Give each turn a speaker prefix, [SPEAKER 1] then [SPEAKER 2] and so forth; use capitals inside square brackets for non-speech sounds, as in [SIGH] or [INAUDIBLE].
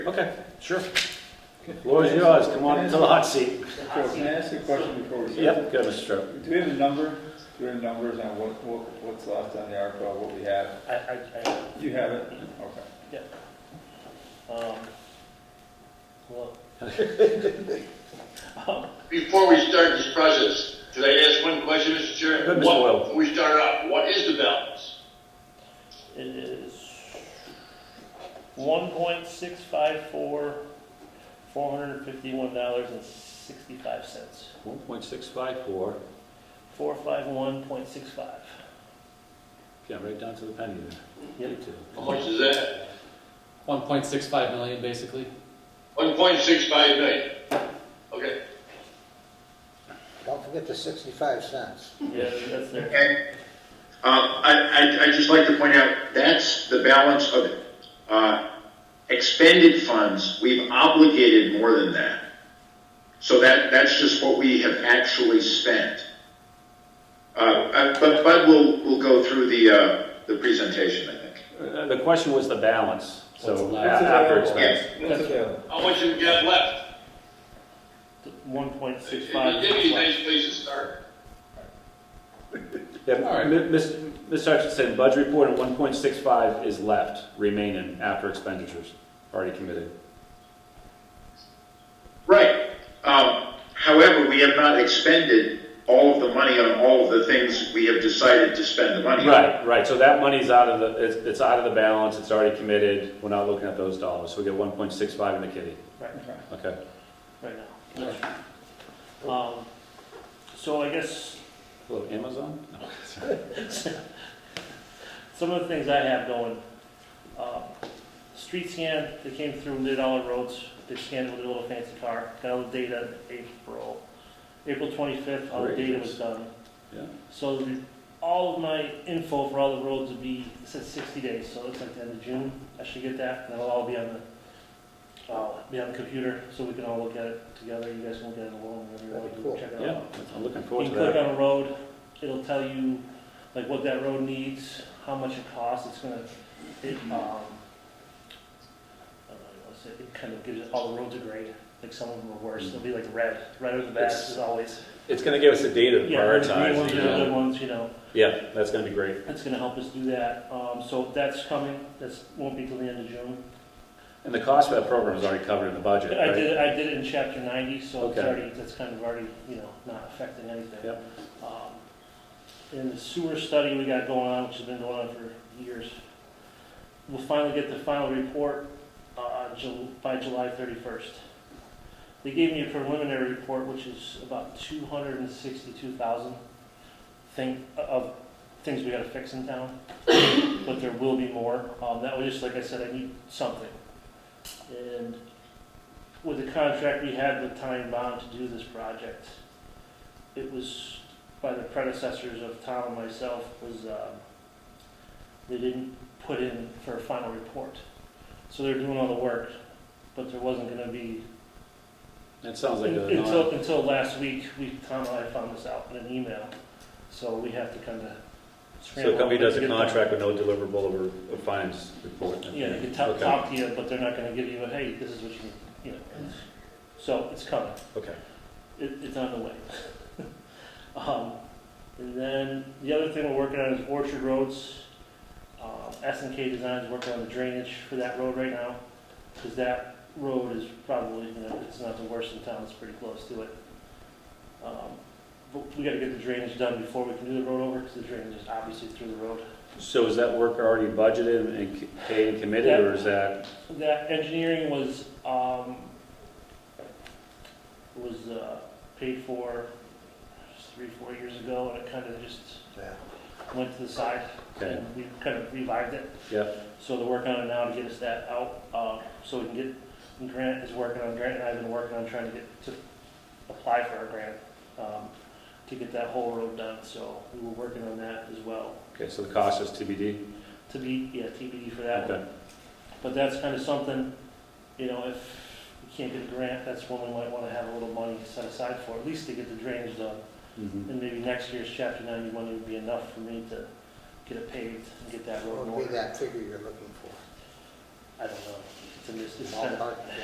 [SPEAKER 1] Okay, sure. Floor's yours, come on into the hot seat.
[SPEAKER 2] Joe, can I ask you a question before we start?
[SPEAKER 1] Yep, go, Mr. Stroh.
[SPEAKER 2] Do we have a number, do we have numbers on what, what, what's left on the ARPA, what we have?
[SPEAKER 3] I, I, I,
[SPEAKER 2] You have it? Okay.
[SPEAKER 3] um, well, [LAUGHS] um,
[SPEAKER 4] Before we start this process, could I ask one question, Mr. Chair?
[SPEAKER 1] Good, Mr.
[SPEAKER 4] What-
[SPEAKER 1] Wells.
[SPEAKER 4] Before we start out, what is the balance?
[SPEAKER 3] it is one point six five four, four hundred and fifty-one dollars and sixty-five cents.
[SPEAKER 1] One point six five four,
[SPEAKER 3] Four five one point six five.
[SPEAKER 1] yeah, right down to the penny there.
[SPEAKER 3] Yep.
[SPEAKER 4] How much is that?
[SPEAKER 5] 1.65 million, basically.
[SPEAKER 4] One point six five million. Okay.
[SPEAKER 6] Don't forget the 65 cents.
[SPEAKER 3] Yeah, that's there.
[SPEAKER 7] And um, I, I, I just like to point out, that's the balance of uh, expended funds. We've obligated more than that. So that, that's just what we have actually spent. Uh, uh, But Bud will, will go through the, uh, the presentation, I think.
[SPEAKER 1] Uh, The question was the balance,
[SPEAKER 5] What's
[SPEAKER 1] so a-
[SPEAKER 5] left?
[SPEAKER 1] after
[SPEAKER 7] Yeah.
[SPEAKER 1] expense.
[SPEAKER 2] What's available?
[SPEAKER 4] How much have we got left?
[SPEAKER 3] One point six five.
[SPEAKER 4] Give me a nice place to start.
[SPEAKER 1] Yeah,
[SPEAKER 5] All right.
[SPEAKER 1] M- Ms. Ms. Hutchinson, budget report and one point six five is left remaining after expenditures, already committed.
[SPEAKER 7] Right. Um, However, we have not expended all of the money on all of the things we have decided to spend the money on.
[SPEAKER 1] Right, right, so that money's out of the, it's, it's out of the balance, it's already committed, we're not looking at those dollars, so we get one point six five in the kitty,
[SPEAKER 3] Right,
[SPEAKER 1] okay?
[SPEAKER 3] right now. Um, so I guess
[SPEAKER 1] Hello, Amazon? No.
[SPEAKER 3] Some of the things I have going, uh, street scan, they came through and did all the roads, they scanned with a little fancy car, got all the data April, April twenty-fifth, all the
[SPEAKER 1] Great.
[SPEAKER 3] data was done.
[SPEAKER 1] Yeah.
[SPEAKER 3] So the- all of my info for all the roads would be, it says sixty days, so it's like the end of June, I should get that, and it'll all be on the, uh, be on the computer, so we can all look at it together, you guys can look at it alone, whatever
[SPEAKER 6] That'd be
[SPEAKER 3] you
[SPEAKER 6] cool.
[SPEAKER 3] want, check it out.
[SPEAKER 1] Yeah, I'm looking
[SPEAKER 3] You
[SPEAKER 1] forward
[SPEAKER 3] can
[SPEAKER 1] to
[SPEAKER 3] click
[SPEAKER 1] that.
[SPEAKER 3] on a road, it'll tell you, like, what that road needs, how much it costs, it's gonna, it, um, I don't know, it's- it kind of gives it all the roads a grade, like some of them are worse, they'll be like red, red are the best, as always.
[SPEAKER 1] Hmm. It's gonna give us the data
[SPEAKER 3] Yeah, the green ones are the good ones, you know,
[SPEAKER 1] uh, Yeah, that's gonna be great.
[SPEAKER 3] it's gonna help us do that, um, so that's coming, that's, won't be till the end of June.
[SPEAKER 1] And the cost for that program is already covered in the
[SPEAKER 3] I
[SPEAKER 1] budget, right?
[SPEAKER 3] did, it- I did it in chapter ninety, so it's
[SPEAKER 1] Okay.
[SPEAKER 3] already, that's kind of already, you know, not affecting anything.
[SPEAKER 1] Yep.
[SPEAKER 3] Um, And the sewer study we got going on, which has been going on for years, we'll finally get the final report uh, Ju- by July 31st. They gave me a preliminary report, which is about 262,000 thing, uh, of things we gotta fix in town, but there will be more. Um, That was just, like I said, I need something. And with the contract we had with Time Bond to do this project, it was by the predecessors of Tom and myself was um, they didn't put in for a final report. So they're doing all the work, but there wasn't going to be
[SPEAKER 1] That sounds like a
[SPEAKER 3] until
[SPEAKER 1] non,
[SPEAKER 3] until last week. We Tom and I found this out in an email, so we have to kind of.
[SPEAKER 1] so the company does a contract with no deliverable or a finance report.
[SPEAKER 3] Yeah, they can talk,
[SPEAKER 1] Okay,
[SPEAKER 3] talk to you, but they're not going to give you a hey, this is what you need. You know, so it's coming.
[SPEAKER 1] Okay,
[SPEAKER 3] it, it's on the way. [LAUGHS] um, and then the other thing we're working on is Orchard Roads. Um, S and K Design is working on the drainage for that road right now, because that road is probably you know, it's not the worst in town. It's pretty close to it. Um, but we got to get the drainage done before we can do the road over, because the drainage is obviously through the road.
[SPEAKER 1] so is that work already budgeted and c- paid and committed, or is that,
[SPEAKER 3] That engineering was, um, was, uh, paid for three, four years ago, and it kind of just
[SPEAKER 6] Yeah.
[SPEAKER 3] went to the side,
[SPEAKER 1] Okay.
[SPEAKER 3] and we kind of revived it.
[SPEAKER 1] yeah,
[SPEAKER 3] So they're working on it now to get us that out, uh, so we can get, and Grant is working on, Grant and I have been working on trying to get, to apply for our grant, um, to get that whole road done, so we were working on that as well,
[SPEAKER 1] okay, so the cost is TBD?
[SPEAKER 3] to be, yeah, TBD for that one.
[SPEAKER 1] Okay,
[SPEAKER 3] But that's kind of something, you know, if we can't get a grant, that's when we might want to have a little money set aside for, at least to get the drainage done.
[SPEAKER 1] mhm.
[SPEAKER 3] And maybe next year's chapter ninety money would be enough for me to get it paved and get that road in
[SPEAKER 6] What would
[SPEAKER 3] order.
[SPEAKER 6] be that figure you're looking for?
[SPEAKER 3] I don't know.
[SPEAKER 8] It's in this, this
[SPEAKER 3] Ballpark, yeah.